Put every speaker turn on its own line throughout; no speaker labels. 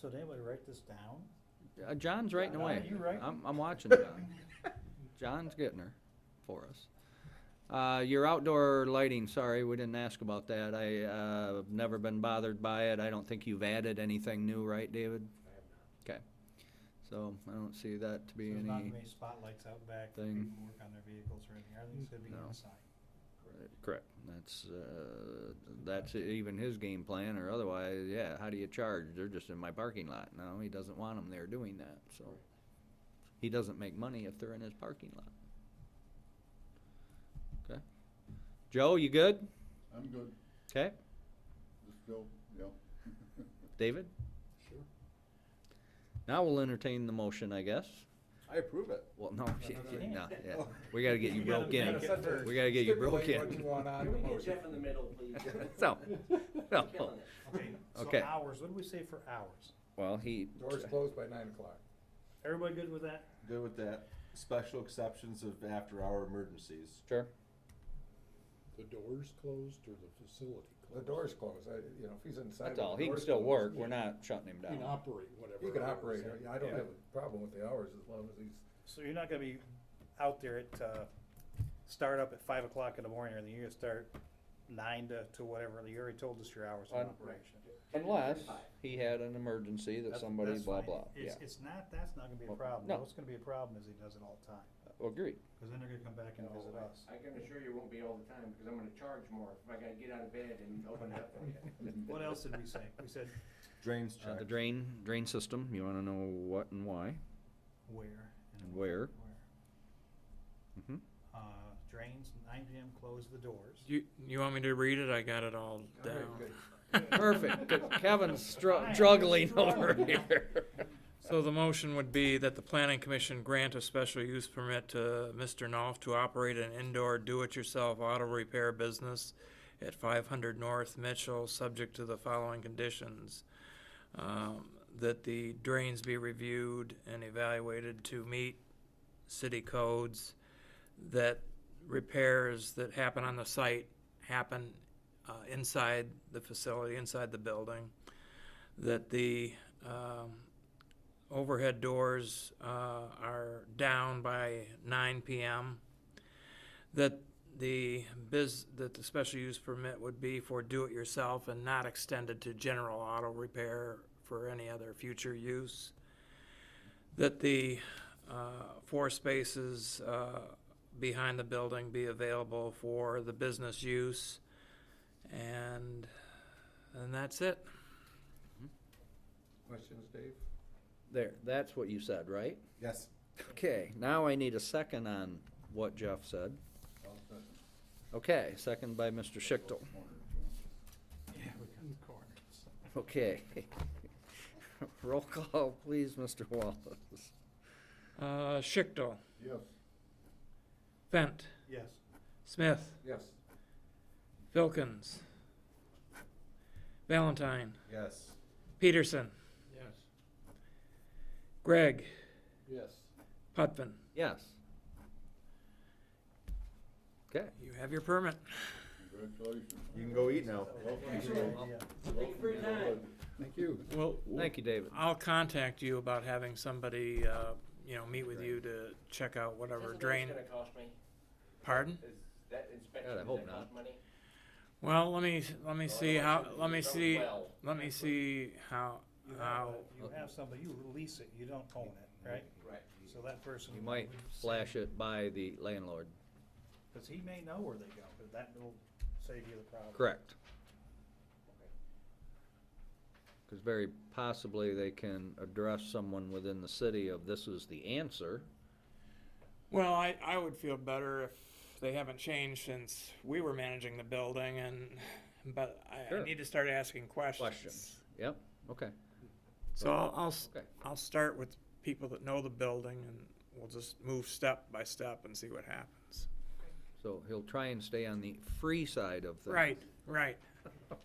So did anybody write this down?
Um, Uh, John's writing
John, are
away.
you writing?
I'm, I'm watching John. John's getting her for us. Uh, your outdoor lighting, sorry, we didn't ask about that. I, uh, have never been bothered by it. I don't think you've added anything new, right, David? Okay. So I don't see that to be
There's not
any,
gonna be spotlights out back for
thing.
people to work on their vehicles or anything, everything's gonna be
No.
inside.
correct. That's, uh, that's even his game plan or otherwise, yeah, how do you charge? They're just in my parking lot. No, he doesn't want them there doing that, so. He doesn't make money if they're in his parking lot. Okay. Joe, you good?
I'm good,
Okay.
just go, yeah.
David?
Sure.
Now we'll entertain the motion, I guess.
I approve it.
Well, no, yeah,
no,
yeah,
no.
no, yeah. We gotta get you
You gotta-
broke
you
in.
gotta set the-
We gotta get you broke
Stipulate what
in.
you want on
Can
the
we get
motion.
Jeff in the middle, please?
So, no.
He's killing it.
Okay,
Okay.
so hours, what do we say for hours?
Well, he,
Doors closed by nine o'clock.
Everybody good with that?
Good with that. Special exceptions of after-hour emergencies.
sure.
The doors closed or the facility
The
closed?
door's closed, I, you know, if he's inside.
That's
with
all.
the
He can
doors
still work.
closed,
We're not shutting him
You can
down.
operate whatever.
He can
hours.
operate, I don't
Yeah.
have a problem with the hours as long as he's,
So you're not gonna be out there at, uh, start up at five o'clock in the morning, and then you're gonna start nine to, to whatever, you already told us your hours of
Un-
operation.
Unless he had an emergency that
That's-
somebody
that's
blah,
fine.
blah, yeah.
It's, it's not, that's not gonna be a
Well,
problem,
no.
what's gonna be a problem is he does it all the time,
Agreed.
cause then they're gonna come back and visit us.
I can assure you it won't be all the time, because I'm gonna charge more if I gotta get out of bed and open it up for you.
What else did we say? We said
Drains
Uh, the
checked.
drain, drain system, you wanna know what and why
where
and
and
where.
where.
Mhm.
Uh, drains, nine PM, close the doors.
You you want me to read it? I got it all
All right,
down.
good.
Perfect, 'cause Kevin's
Fine.
str- struggling over here.
So the motion would be that the planning commission grant a special use permit to Mr. Knopf to operate an indoor do-it-yourself auto repair business at five hundred North Mitchell, subject to the following conditions. Um, that the drains be reviewed and evaluated to meet city codes, that repairs that happen on the site happen, uh, inside the facility, inside the building, that the, um, overhead doors uh, are down by 9 p.m. That the biz that the special use permit would be for do-it-yourself and not extended to general auto repair for any other future use. That the uh, four spaces uh, behind the building be available for the business use, and and that's it.
Questions, Dave?
There, that's what you said, right?
Yes.
Okay, now I need a second on what Jeff said.
All set.
Okay, second by Mr. Schichtel.
Yeah, we cut the corners.
Okay. Roll call, please, Mr. Wallace.
Uh, Schichtel,
Yes.
Fent,
Yes.
Smith,
Yes,
Vilkins. Valentine.
Yes.
Peterson.
Yes.
Gregg.
Yes.
Putvin.
Yes. Okay,
You have your permit.
Congratulations.
You can go eat now.
Thank you for your time.
thank you.
Well,
thank you, David.
I'll contact you about having somebody, uh, you know, meet with you to check out whatever
Isn't that
drain.
gonna cost me?
Pardon?
Is that inspection,
God, I
does
hope
that cost
not.
money?
Well, let me let me
Well,
see
I
how
want you to
let me
do it
see
well.
let me see how
You have,
how
you have somebody, you lease it, you don't own it, right?
Right.
So that person.
You might flash it by the landlord.
Cause he may know where they go, but that will save you the problem.
Correct. Because very possibly they can address someone within the city of this is the answer.
Well, I, I would feel better if they haven't changed since we were managing the building and, but I, I
Sure.
need to start asking questions.
Questions. Yep, okay,
So I'll, I'll, s-
okay.
I'll start with people that know the building and we'll just move step by step and see what happens.
So he'll try and stay on the free side of things.
Right, right.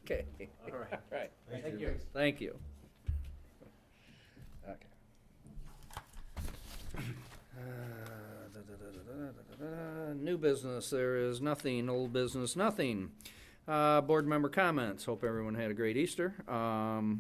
Okay,
All right.
right,
Thank you.
thank you. Okay. Uh, da, da, da, da, da, da, da, da. Uh, New business, there is nothing, old business, nothing. Uh, board member comments, hope everyone had a great Easter. Um,